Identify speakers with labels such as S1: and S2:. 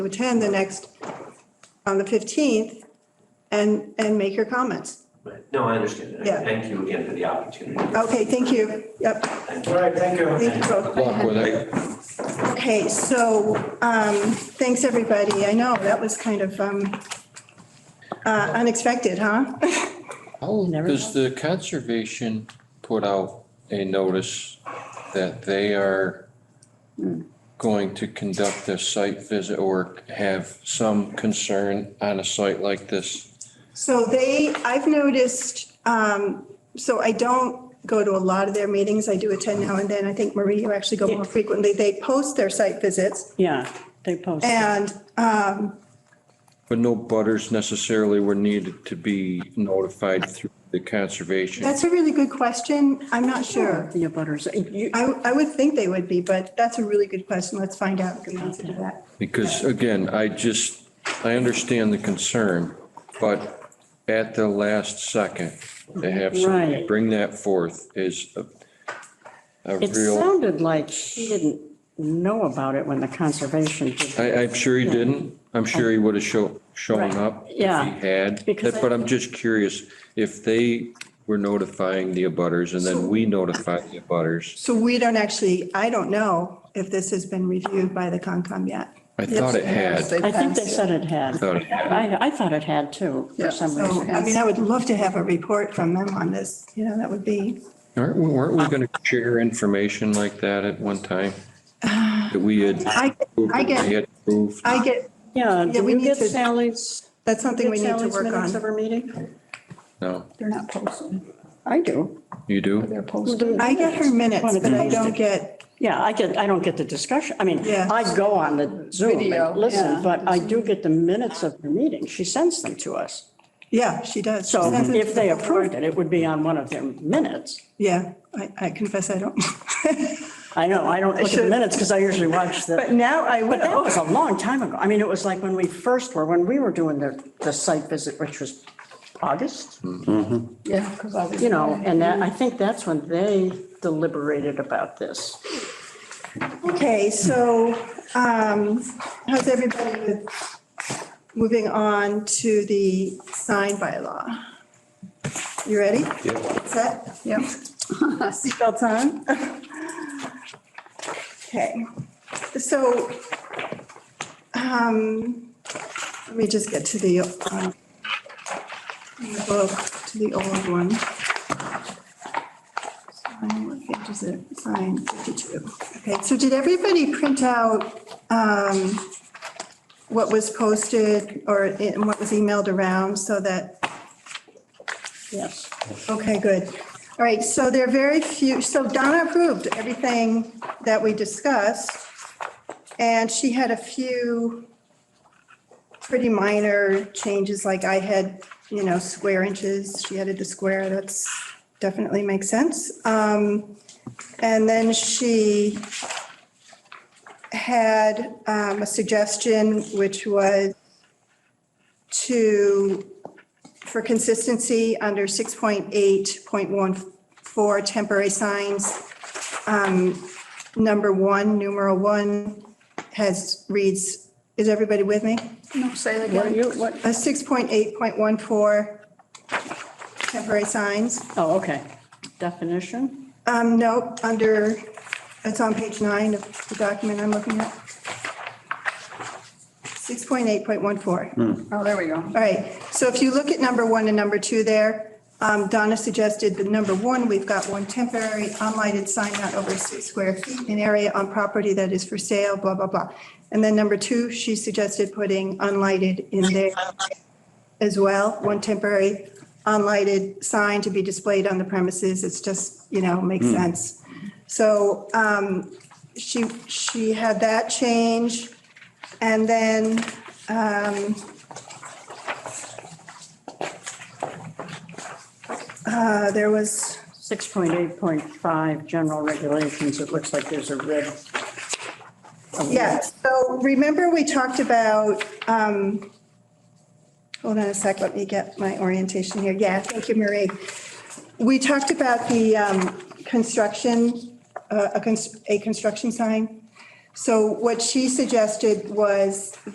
S1: to attend the next, on the 15th, and, and make your comments.
S2: Right. No, I understand. And
S1: Yeah.
S2: Thank you again for the opportunity.
S1: Okay, thank you. Yep,
S3: All right, thank you.
S1: thank you both.
S4: luck with it.
S1: Okay, so, um, thanks, everybody. I know, that was kind of, um, uh, unexpected, huh?
S4: How
S5: Never
S4: does the conservation put out a notice that they are going to conduct a site visit or have some concern on a site like this?
S1: So they, I've noticed, um, so I don't go to a lot of their meetings. I do attend now and then. I think Marie, you actually go more frequently. They post their site visits
S5: Yeah, they post.
S1: and, um,
S4: But no butters necessarily were needed to be notified through the conservation.
S1: that's a really good question. I'm not sure.
S5: The butters. You-
S1: I, I would think they would be, but that's a really good question. Let's find out the answer to that.
S4: Because again, I just, I understand the concern, but at the last second, to have somebody
S5: Right.
S4: bring that forth is a, a
S5: It
S4: real.
S5: sounded like he didn't know about it when the conservation did.
S4: I, I'm sure he didn't. I'm sure he would have show, shown
S5: Right.
S4: up. if
S5: Yeah.
S4: He had,
S5: Because
S4: but I'm just curious if they were notifying the abutters and then we notify the abutters.
S1: So we don't actually, I don't know if this has been reviewed by the Concom yet.
S4: I thought it had,
S5: I think they said it
S4: I
S5: had.
S4: thought it had.
S5: I, I thought it had too, for some
S1: So, I mean,
S5: reason.
S1: I would love to have a report from them on this. You know, that would be,
S4: Aren't, we- weren't we going to share information like that at one time? That we had.
S1: I, I get-
S4: we had approved?
S1: I get,
S5: Yeah,
S1: Yeah,
S5: do
S1: we
S5: we
S1: need
S5: get
S1: to-
S5: Sally's?
S1: that's something we
S5: get
S1: need to
S5: Sally's
S1: work
S5: Minutes of
S1: on.
S5: her meeting?
S4: No,
S6: They're not posted.
S5: I do.
S4: you do?
S6: They're posted.
S1: I get her minutes, but I don't get,
S5: Yeah, I get, I don't get the discussion. I mean,
S1: Yeah.
S5: I go on the Zoom
S6: Video,
S5: and listen,
S6: yeah.
S5: but I do get the minutes of her meeting. She sends them to us.
S1: yeah, she does. She
S5: So
S1: sends it to
S5: if they
S1: the
S5: approved
S1: board.
S5: it, it would be on one of their minutes.
S1: Yeah, I, I confess I don't.
S5: I know, I don't look at the minutes because I usually watch the.
S1: But now I
S5: But that
S1: will.
S5: was a long time ago. I mean, it was like when we first were, when we were doing the, the site visit, which was August,
S6: Yeah, because I was.
S5: you know, and that, I think that's when they deliberated about this.
S1: Okay, so, um, how's everybody with moving on to the sign bylaw? You ready? Yep. Set? Yep. Seatbelts on? Okay, so, um, let me just get to the, um, the book, to the old one. Sign, what page is it? Sign 52. Okay, so did everybody print out um, what was posted or i- what was emailed around so that,
S5: Yes.
S1: okay, good. All right, so there are very few, so Donna approved everything that we discussed. And she had a few pretty minor changes, like I had, you know, square inches, she added the square, that's definitely makes sense. Um, and then she had, um, a suggestion, which was to, for consistency, under six point eight point one four temporary signs, um, number one, numeral one has, reads, is everybody with me?
S6: No, say it
S5: What are
S6: again.
S5: you, what,
S1: A 6.8.14 temporary signs.
S5: oh, okay. Definition?
S1: Um, no, under, it's on page nine of the document I'm looking at. 6.8.14.
S6: Oh, there we go.
S1: All right, so if you look at number one and number two there, um, Donna suggested the number one, we've got one temporary unlighted sign not over six square feet in area on property that is for sale, blah, blah, blah. And then number two, she suggested putting unlighted in there as well, one temporary unlighted sign to be displayed on the premises. It's just, you know, makes sense. So um, she, she had that change. And then um, uh, there was,
S5: 6.8.5, general regulations. It looks like there's a red. a red-
S1: yeah, so remember we talked about, um, hold on a sec, let me get my orientation here. Yeah, thank you, Marie. We talked about the um, construction, uh, a cons- a construction sign. So what she suggested was